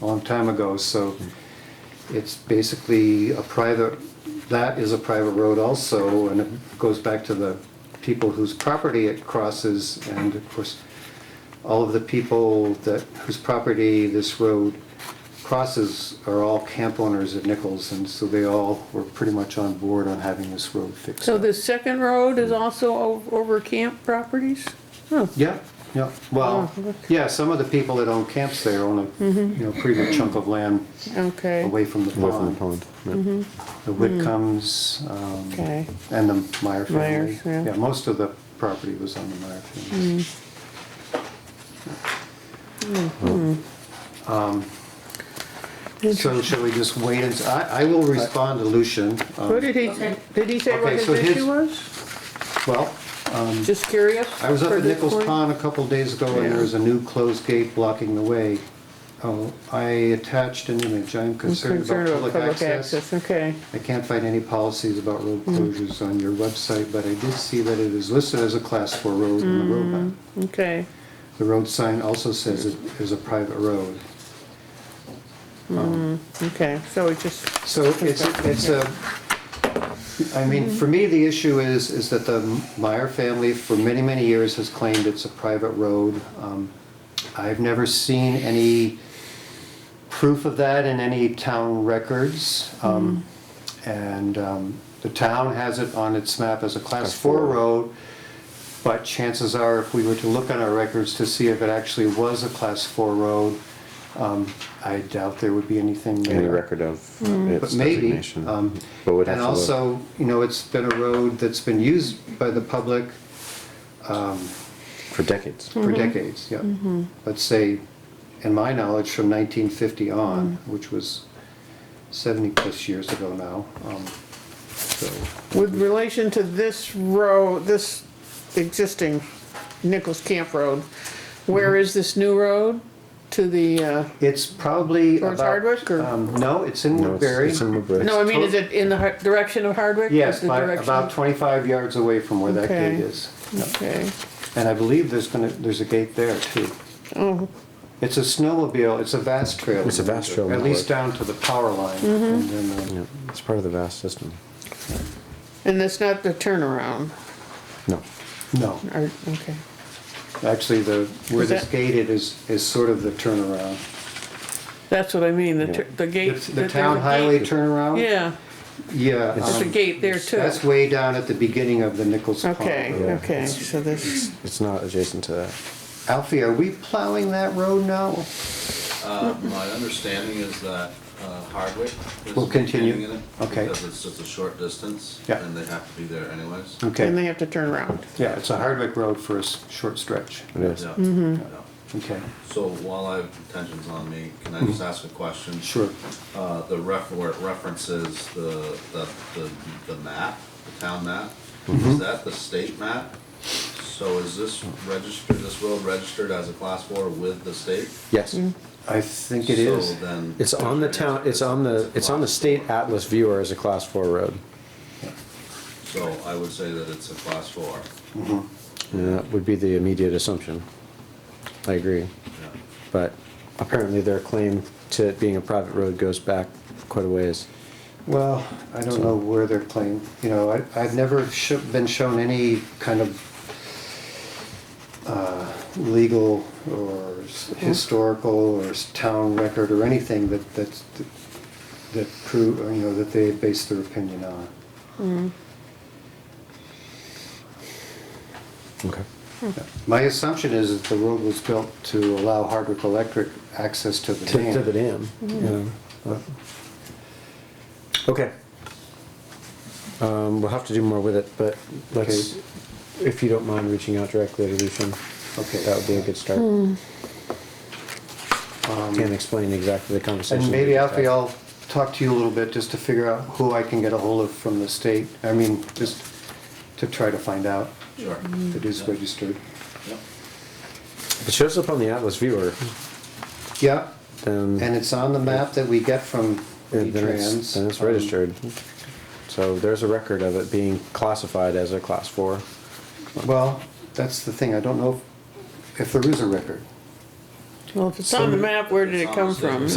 a long time ago, so it's basically a private, that is a private road also, and it goes back to the people whose property it crosses, and of course, all of the people that, whose property this road crosses are all camp owners at Nichols, and so they all were pretty much on board on having this road fixed. So the second road is also o- over camp properties? Huh, Yeah, yeah, well, Oh, look. Mm-hmm. yeah, some of the people that own camps there own a, you know, pretty good chunk of land okay, away from the away from the pond. pond. yeah. The Whitcombs, um, okay. and the Hmm. Meyer family. Myers, yeah. Yeah, most of the property was on the Meyer family. Hmm. um, So shall we just wait and, I, I will respond to Lucian. um, What did he, did he say what Okay, his so his- issue was? Well, Just curious? I was up for at this Nichols point? Pond a couple days ago and there was a new closed gate blocking the way. Oh, I attached an image, I am concerned about public access. Okay, I can't find any policies about road closures on your website, but I did see that it is listed as a class four road in the road map. okay, The road sign also says it is a private road. okay, so it just, So it's, it's a, I mean, for me, the issue is, is that the Meyer family for many, many years has claimed it's a private road. Um, I've never seen any proof of that in any town records. Um, And um, the town has it on its map as a class four road. But chances are, if we were to look on our records to see if it actually was a class four road, um, I doubt there would be anything there. Any record of uh, But its maybe. designation. um, But we'd have And to look. also, you know, it's been a road that's been used by the public For decades. Mm-hmm. for decades, yeah. Let's say, in my knowledge, from 1950 on, Mm. which was 70-plus years ago now. um, So, with relation to this road, this existing Nichols Camp Road, where Mm-hmm. is this new road? To the, uh, It's probably about... Towards Hardwick, or- um, No, it's in No, it's- Woodbury. it's in Woodbury. no, I mean, is it in the har- direction of Hardwick? Is Yes, the by- direction- about 25 yards away from where that Okay. gate is. Okay, And I believe there's gonna, there's a gate there too. oh, It's a snowmobile, it's a vast trail. It's a vast trail At least network. down to the power line. Mm-hmm. and then, uh, Yeah, it's part of the vast system. and that's not the turnaround, No. No, or, okay, actually, the, where Is this that- gated is, is sort of the turnaround. that's what I mean, the, tur- Yeah. the gate. It's that The there's town a gate. highway turnaround? Yeah, Yeah. there's a um, gate there too. That's way down at the beginning of the Nichols Pond. Okay, Road. okay, so this, It's not adjacent to that. Alfie, are we plowing that road now? Uh, My understanding is that uh, Hardwick is We'll continue. continuing it. Okay. Because it's just a short distance. Yeah. Mm, And they have to be there anyways. and Okay, they have to turn around. yeah, it's a Hardwick road for a s- short stretch. It is. Yeah, yeah. Okay, So while I have intentions on me, can I just ask a question? Mm-hmm. sure. Uh, The ref, where it references the, the, the- the map, the town map, Mm-hmm. is that the state map? So is this registered, this road registered as a class four with the state? Yes. I think it is. So then. It's on the town, it's on the, it's on the state atlas viewer as a class four road. So I would say that it's a class four. And that would be the immediate assumption. I agree. Yeah. But apparently their claim to it being a private road goes back quite a ways. Well, I don't know where they're playing, you know, I, I've never sho- been shown any kind of uh, legal or s- historical or s- town record or anything that, that's, that prove, you know, that they base their opinion on. Okay. My assumption is that the road was built to allow Hardwick Electric access to the To, to the dam. dam, yeah. but- Okay. Um, we'll have to do more with it, but let's, Okay. if you don't mind reaching out directly to Lucian, that Okay, Hmm. would be a good start. And explain exactly the conversation. Um, and we maybe just Alfie, had. I'll talk to you a little bit just to figure out who I can get a hold of from the state, I mean, just to try to find out. Sure. It is registered. Yep. If It shows up on the Atlas viewer, Yeah, then, and it's on the map that we get from then it's, V-Trans. then it's Um, registered. So there's a record of it being classified as a class four. Well, that's the thing, I don't know if- if there is a record. Well, if it's on the map, where did it come from?